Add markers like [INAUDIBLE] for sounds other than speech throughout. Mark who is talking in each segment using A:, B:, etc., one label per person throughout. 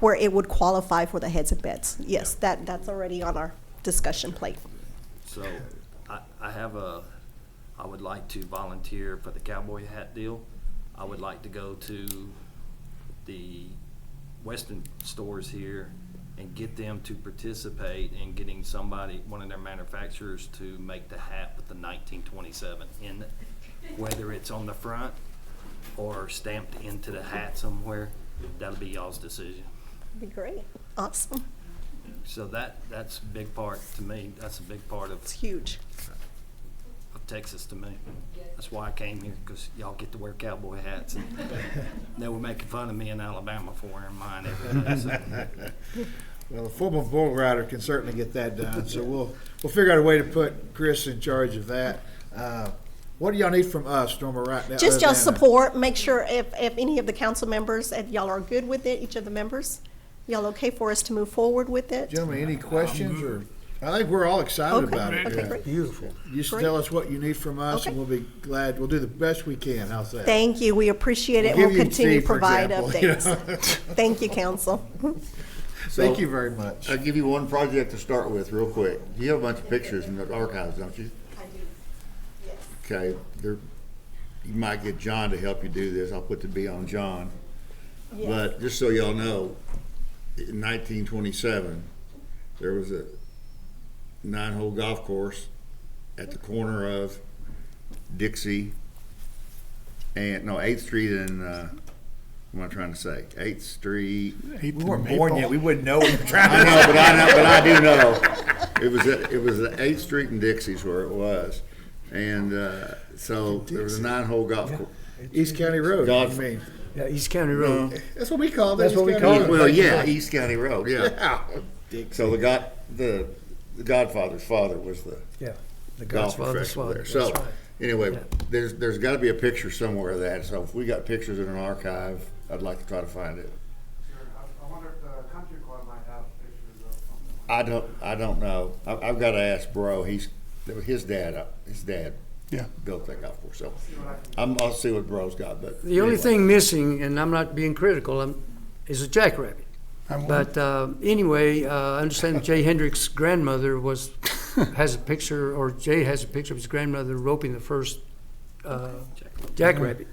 A: where it would qualify for the heads and beds. Yes, that, that's already on our discussion plate.
B: So I, I have a, I would like to volunteer for the cowboy hat deal. I would like to go to the western stores here and get them to participate in getting somebody, one of their manufacturers to make the hat with the nineteen twenty-seven in it. Whether it's on the front or stamped into the hat somewhere, that'll be y'all's decision.
A: Be great. Awesome.
B: So that, that's a big part to me. That's a big part of
A: It's huge.
B: of Texas to me. That's why I came here, because y'all get to wear cowboy hats. and They were making fun of me in Alabama for wearing mine every day. so.
C: Well, a former bull rider can certainly get that done, so we'll, we'll figure out a way to put Chris in charge of that. Uh, What do y'all need from us, Norma, right now?
A: Just
C: other
A: y'all
C: than a-
A: support, make sure if, if any of the council members, if y'all are good with it, each of the members, y'all okay for us to move forward with it?
C: Gentlemen, any questions or, I think we're all excited
A: Okay,
C: about it.
A: okay,
C: Yeah.
A: great.
C: You Just
A: Great.
C: tell us what you need from us and
A: Okay.
C: we'll be glad, we'll do the best we can, how's that?
A: Thank you, we appreciate it,
C: Give
A: we'll
C: you
A: continue
C: tea,
A: to
C: for
A: provide
C: example, you [LAUGHS]
A: updates. Thank you, council.
C: Thank you very much.
D: Uh,
E: I'll give you one project to start with real quick. You have a bunch of pictures in the archives, don't you? Okay, there, you might get John to help you do this. I'll put the B on John. But just so y'all know, in nineteen twenty-seven, there was a nine-hole golf course at the corner of Dixie and, no, Eighth Street and, uh, what am I trying to say? Eighth Street
C: We weren't born yet, we wouldn't know.
E: I know, but I know, but I do know. It was at, it was at Eighth Street and Dixie's where it was, and uh, so there was a nine-hole golf course.
C: East County Road,
E: Golf.
C: you mean?
D: Yeah, East County Road.
C: That's what we call it.
D: That's what we
C: East
D: call
C: County
D: it.
C: Road.
E: Well, yeah, East County Road, yeah.
C: Yeah.
E: So the God, the, the Godfather's father was the
D: Yeah. The
E: golf
D: Godfather's
E: professional
D: Father.
E: there.
D: That's
E: So
D: right.
E: anyway,
D: Yeah.
E: there's there's got to be a picture somewhere of that. So if we got pictures in an archive, I'd like to try to find it.
F: Sure, I, I wonder if the country club might have pictures of something.
E: I don't, I don't know. I, I've got to ask Bro. He's his dad. uh, His dad.
G: Yeah.
E: Built that golf course. So I'm, I'll see what Bro's got. But
D: The only
E: anyway.
D: thing missing, and I'm not being critical, um, is a jackrabbit.
G: I'm-
D: But uh, anyway, uh, I understand Jay Hendrick's grandmother was, has a picture, or Jay has a picture of his grandmother roping the first uh, jackrabbit.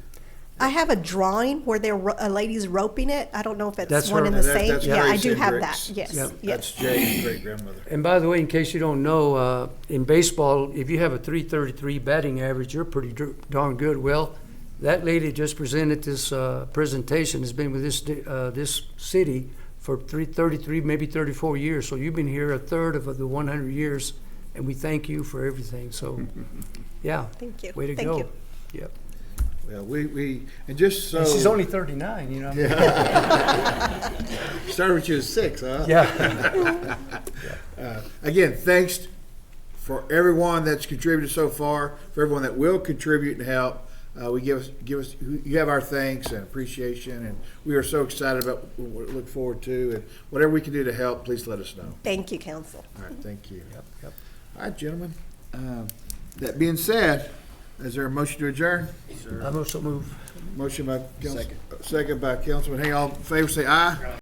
A: I have a drawing where they're, ro- a lady's roping it, I don't know if it's
D: That's
A: one
D: her.
A: and the
C: And that-
A: same.
C: that's
A: Yeah, I
C: Grace
A: do have that,
C: Hendricks.
A: yes,
D: Yep.
A: yes.
C: That's Jay's great grandmother.
D: And by the way, in case you don't know, uh, in baseball, if you have a 333 batting average, you're pretty dr- darn good. Well, that lady just presented this uh, presentation, has been with this, di- uh, this city for three- 33, maybe 34 years. So you've been here a third of the 100 years, and we thank you for everything. So, yeah.
A: Thank you.
D: Way to
A: Thank
D: go.
A: you.
D: Yep.
C: Well, we, we, and just so.
D: And she's only 39, you know? Yeah.
C: Started with you at six, huh? Uh,
D: Yeah.
C: [LAUGHS] Again, thanks for everyone that's contributed so far, for everyone that will contribute and help. Uh, we give us, give us, you have our thanks and appreciation, and we are so excited about what we look forward to, and whatever we can do to help, please let us know.
A: Thank you, council.
C: All right, thank you.
D: yep.
C: All right, gentlemen. Um, That being said, is there a motion to adjourn?
D: I'm also moved.
C: Motion by, Council- second by Councilman Hay, all in favor, say aye.